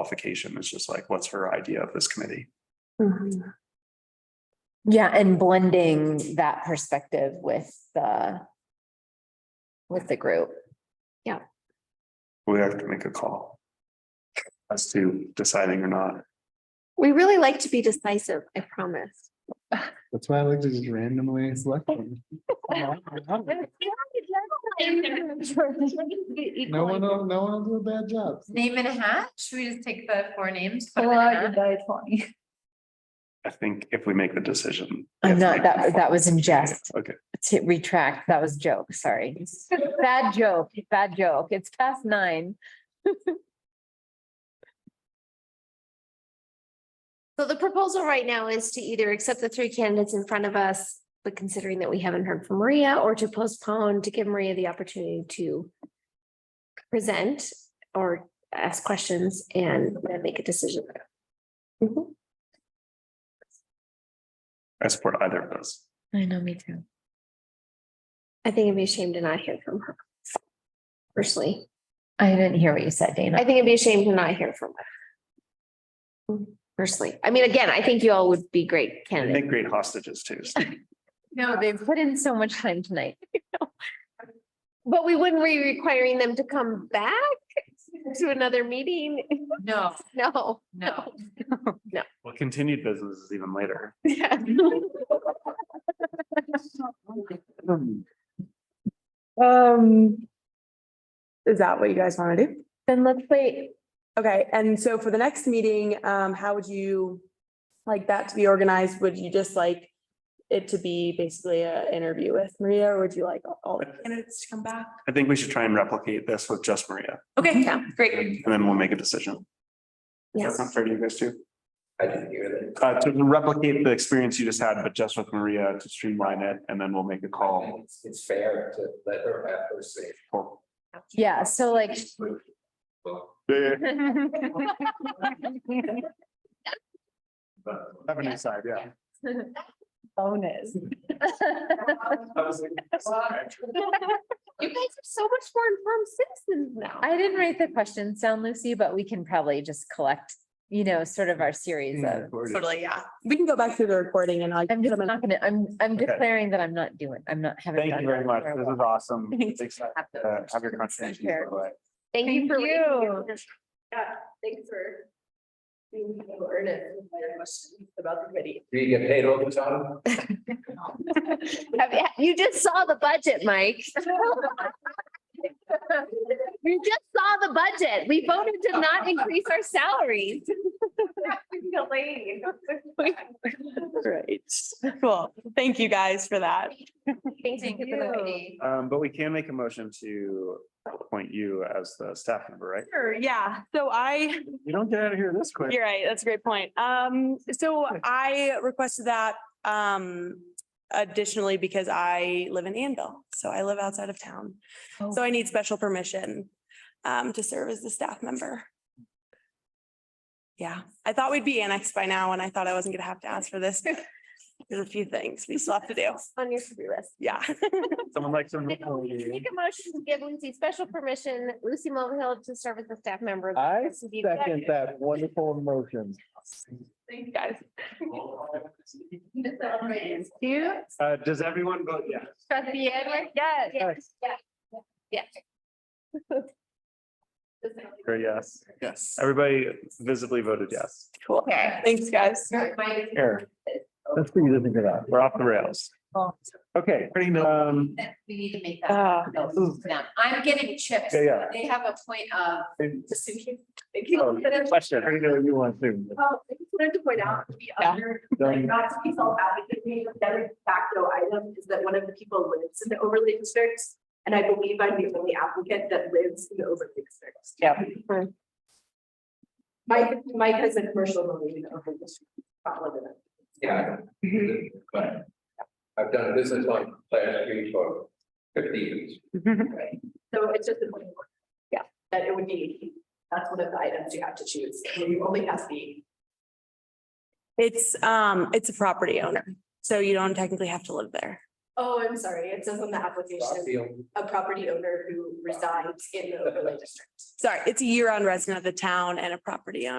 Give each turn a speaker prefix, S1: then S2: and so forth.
S1: qualification. It's just like, what's her idea of this committee?
S2: Mhm. Yeah, and blending that perspective with the with the group.
S1: We have to make a call. As to deciding or not.
S3: We really like to be decisive, I promise.
S1: That's why I like to just randomly select them. No one, will- no one will do a bad job.
S4: Name in a hat? Should we just take the four names? put 'em in a hat?
S5: Twenty.
S1: I think if we make the decision.
S2: I'm not, that that was in jest
S1: Okay,
S2: to retract. That was joke, sorry. Bad joke, bad joke. It's past nine.
S3: So the proposal right now is to either accept the three candidates in front of us, but considering that we haven't heard from Maria, or to postpone to give Maria the opportunity to present or ask questions and then make a decision. Mhm.
S1: I support either of those.
S2: I know, me too.
S3: I think it'd be a shame to not hear from her. Personally,
S2: I didn't hear what you said,
S3: I
S2: Dana.
S3: think it'd be a shame to not hear from her. Personally, I mean, again, I think you all would be great
S1: They
S3: candidates.
S1: make great hostages too. so
S2: No, they've put in so much time tonight.
S3: But we wouldn't be requiring them to come back to another meeting.
S4: No,
S3: No.
S4: no.
S1: Well, continued business is even later.
S3: Yeah.
S5: Um. Is that what you guys want to do?
S2: Then let's wait.
S5: Okay, and so for the next meeting, um, how would you like that to be organized? Would you just like it to be basically a interview with Maria, or would you like all the candidates to come back?
S1: I think we should try and replicate this with just Maria
S5: Okay,
S3: Yeah.
S5: great.
S1: and then we'll make a decision.
S3: Yeah.
S1: That's not fair to you guys too.
S6: I didn't hear that.
S1: Uh, to replicate the experience you just had, but just with Maria to streamline it and then we'll make a
S6: I think
S1: call.
S6: It's it's fair to let her have her say.
S2: Yeah, so like,
S6: Well,
S1: Yeah,
S6: but-
S1: revenue side, yeah.
S5: Bonus.
S3: You guys are so much more informed citizens now.
S2: I didn't write the questions down, Lucy, but we can probably just collect, you know, sort of our series
S1: Mm-hmm.
S2: of.
S5: Totally, yeah. We can go back through the recording and I'll.
S2: I'm just not gonna, I'm, I'm
S1: Okay.
S2: declaring that I'm not doing, I'm not having.
S1: Thank you very much. This is awesome. It's exciting
S2: Have those
S1: to Have your contribution. by the way.
S3: Thank you
S2: Thank
S3: for. raising
S2: you.
S3: it.
S7: Thanks for being so earnest with my questions about the committee.
S6: Do you get paid overtime?
S3: Have you- You just saw the budget, Mike. You just saw the budget. We voted to not increase our salaries.
S5: Great, cool. Thank you guys for that.
S3: Thank
S4: Thank you.
S1: Um, but we can make a motion to appoint you as the staff member, right?
S5: Sure, yeah. So I
S1: You don't get out of here this quick.
S5: You're right. That's a great point. Um, so I requested that, um, additionally because I live in Anvil, so I live outside of town. So I need special permission, um, to serve as the staff member. Yeah, I thought we'd be annexed by now and I thought I wasn't gonna have to ask for this. but There's a few things we still have to do.
S3: On your to-do list.
S5: Yeah.
S1: Someone likes to.
S3: Make a motion to give Lucy special permission, Lucy Mulvihill to serve as a staff member.
S8: I
S3: Be
S8: second that wonderful motion.
S4: Thank you, guys. You,
S1: Uh, does everyone vote yes?
S4: trustee Edwards? Yes. Yes.
S1: Or yes?
S6: Yes.
S1: Everybody visibly voted yes.
S5: Cool.
S4: Okay.
S5: Thanks, guys.
S1: Here,
S8: That's pretty good to get out.
S1: we're off the rails. Okay, um,
S4: We need to make that.
S5: Uh,
S4: available to them. I'm getting chips.
S1: Yeah, yeah.
S4: They have a point
S2: uh,
S4: of.
S8: Oh, Question, I know you want to.
S7: Well, I just wanted to point out, to be
S5: Yeah.
S7: under, like, not to be self-advocating, but that de facto item is that one of the people lives in the overlay district. And I believe I'm the only applicant that lives in the overlay district.
S5: Yeah.
S7: Mike, Mike has a commercial building in the overlay district. not living in it.
S6: Yeah. I know. But I've done business on Class Street for fifty years.
S7: So it's just a point of order.
S5: Yeah.
S7: That it would be, that's one of the items you have to choose. You only have the,
S5: It's, um, it's a property owner, so you don't technically have to live there.
S7: Oh, I'm sorry. It says on the application,
S6: Rockfield.
S7: a property owner who resides in the overlay district.
S5: Sorry, it's a year-round resident of the town and a property owner.